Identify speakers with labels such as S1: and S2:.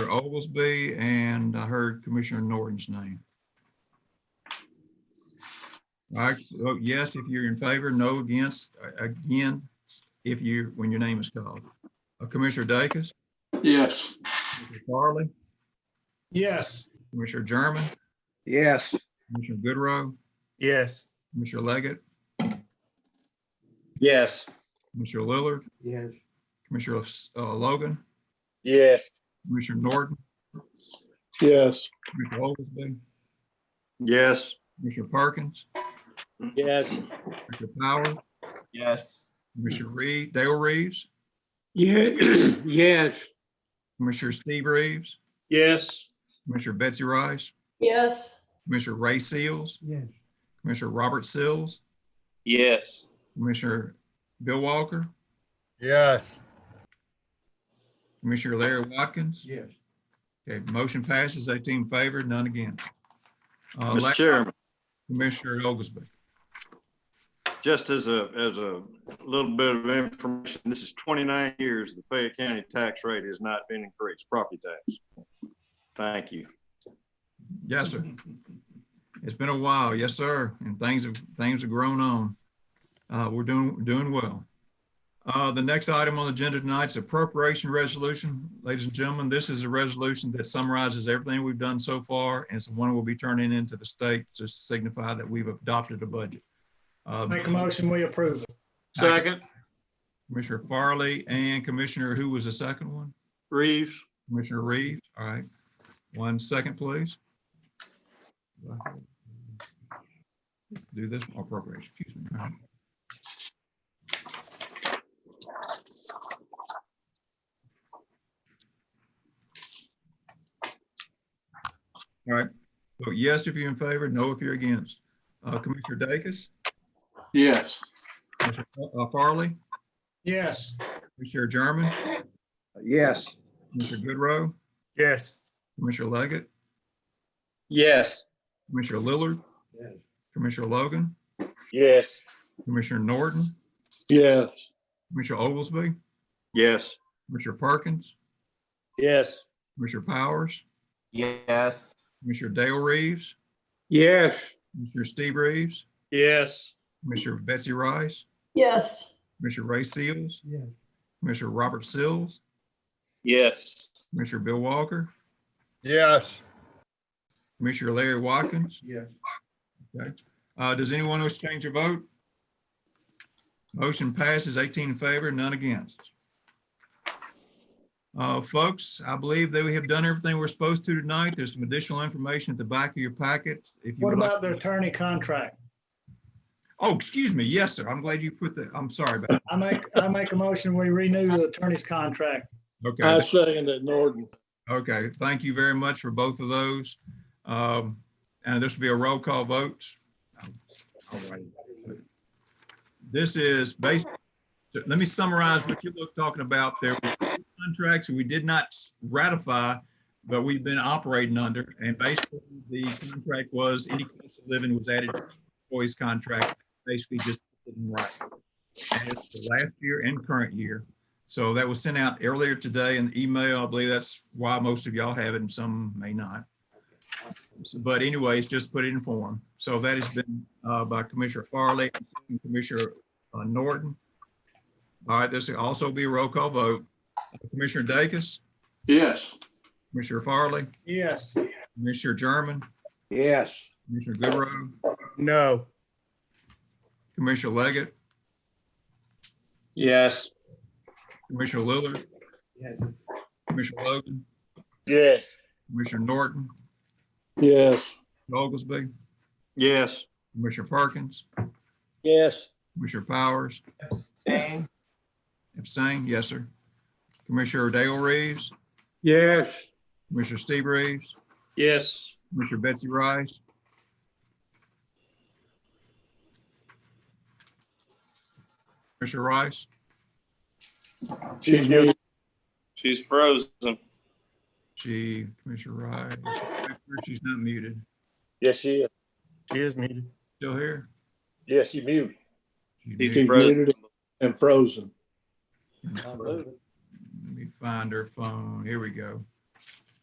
S1: Commissioner Oglesby, and I heard Commissioner Norton's name. All right, vote oh, yes if you're in favor, no against, A- again, if you, when your name is called. Uh, Commissioner Dacus,
S2: Yes.
S1: Commissioner Farley,
S2: Yes.
S1: Commissioner German,
S3: Yes.
S1: Commissioner Goodrow,
S4: yes,
S1: Commissioner Leggett,
S3: Yes.
S1: Commissioner Lillard,
S3: Yes.
S1: Commissioner uh, Logan,
S3: Yes.
S1: Commissioner Norton,
S2: Yes.
S1: Commissioner Oglesby,
S3: Yes.
S1: Commissioner Perkins,
S3: Yes.
S1: Commissioner Power,
S3: Yes.
S1: Commissioner Reed, Dale Reeves,
S3: Yeah, yes.
S1: Commissioner Steve Reeves,
S3: Yes.
S1: Commissioner Betsy Rice,
S5: yes,
S1: Commissioner Ray Seals,
S3: Yes.
S1: Commissioner Robert Sills,
S3: Yes.
S1: Commissioner Bill Walker,
S2: Yes.
S1: Commissioner Larry Watkins.
S3: Yes.
S1: Okay, motion passes, 18 in favor, none against. Uh,
S6: Mr.
S1: last,
S6: Chairman,
S1: Commissioner Oglesby.
S6: just as a, as a little bit of information, this is 29 years the Fayette County tax rate has not been increased, property tax. Thank you.
S1: Yes, sir. It's been a while, yes, sir, and things have, things have grown on. Uh, we're doing, doing well. Uh, the next item on the agenda tonight is appropriation resolution. Ladies and gentlemen, this is a resolution that summarizes everything we've done so far, and it's the one we'll be turning into the state to signify that we've adopted a budget. Uh,
S7: Make a motion, we approve it.
S2: Second,
S1: Commissioner Farley and Commissioner, who was the second one?
S2: Reeves.
S1: Commissioner Reeves, all right. One second, please. Do this appropriation, excuse me. All right. All right, vote yes if you're in favor, no if you're against. Uh, Commissioner Dacus,
S2: Yes.
S1: Commissioner uh, Farley,
S7: Yes,
S1: Commissioner German,
S3: Yes.
S1: Commissioner Goodrow,
S4: yes,
S1: Commissioner Leggett,
S3: Yes.
S1: Commissioner Lillard.
S3: Yes.
S1: Commissioner Logan,
S3: Yes.
S1: Commissioner Norton,
S2: Yes.
S1: Commissioner Oglesby,
S6: Yes,
S1: Commissioner Perkins,
S3: Yes.
S1: Commissioner Powers,
S3: Yes.
S1: Commissioner Dale Reeves,
S3: Yes.
S1: Commissioner Steve Reeves,
S2: Yes.
S1: Commissioner Betsy Rice,
S5: yes,
S1: Commissioner Ray Seals,
S3: Yes.
S1: Commissioner Robert Sills,
S2: Yes.
S1: Commissioner Bill Walker,
S2: Yes.
S1: Commissioner Larry Watkins.
S3: Yes.
S1: Uh, does anyone wish to change their vote? Motion passes eighteen in favor, none against. Uh, folks, I believe that we have done everything we're supposed to tonight. There's some additional information at the back of your packet. If you
S7: what
S1: would like.
S7: about the attorney contract?
S1: Oh, excuse me. Yes, sir. I'm glad you put that. I'm sorry about
S7: I make, I make a motion, we renew the attorney's contract.
S1: that. Okay.
S2: I
S3: Uh,
S2: second that, Norton.
S1: Okay, thank you very much for both of those. Um, and this will be a roll call vote. All right. This is based, let me summarize what you look talking about. There were contracts we did not ratify, but we've been operating under. And basically, the contract was any cost of living was added to the employee's contract, basically just didn't write. And it's the last year and current year. So that was sent out earlier today in the email. I believe that's why most of y'all have it and some may not. So- But anyways, just put it in form. So that has been uh, by Commissioner Farley and Commissioner uh, Norton. All right, this will also be a roll call vote. Commissioner Dacus,
S2: Yes.
S1: Commissioner Farley,
S7: Yes,
S1: Commissioner German,
S3: Yes.
S1: Commissioner Goodrow,
S4: no,
S1: Commissioner Leggett,
S3: Yes.
S1: Commissioner Lillard, Commissioner Logan,
S3: Yes.
S1: Commissioner Norton,
S2: Yes.
S1: Oglesby,
S6: yes,
S1: Commissioner Perkins,
S3: Yes.
S1: Commissioner Powers,
S3: Abstain.
S1: Abstain, yes, sir. Commissioner Dale Reeves,
S3: Yes.
S1: Commissioner Steve Reeves,
S2: Yes.
S1: Commissioner Betsy Rice. Commissioner Rice,
S2: She's muted. She's frozen.
S1: she, Commissioner Rice, she's not muted,
S3: Yes, she is.
S4: she is muted.
S1: still here?
S3: Yes, you mute.
S1: She's
S2: She's
S1: muted.
S2: muted and frozen.
S1: Let me find her phone, here we go.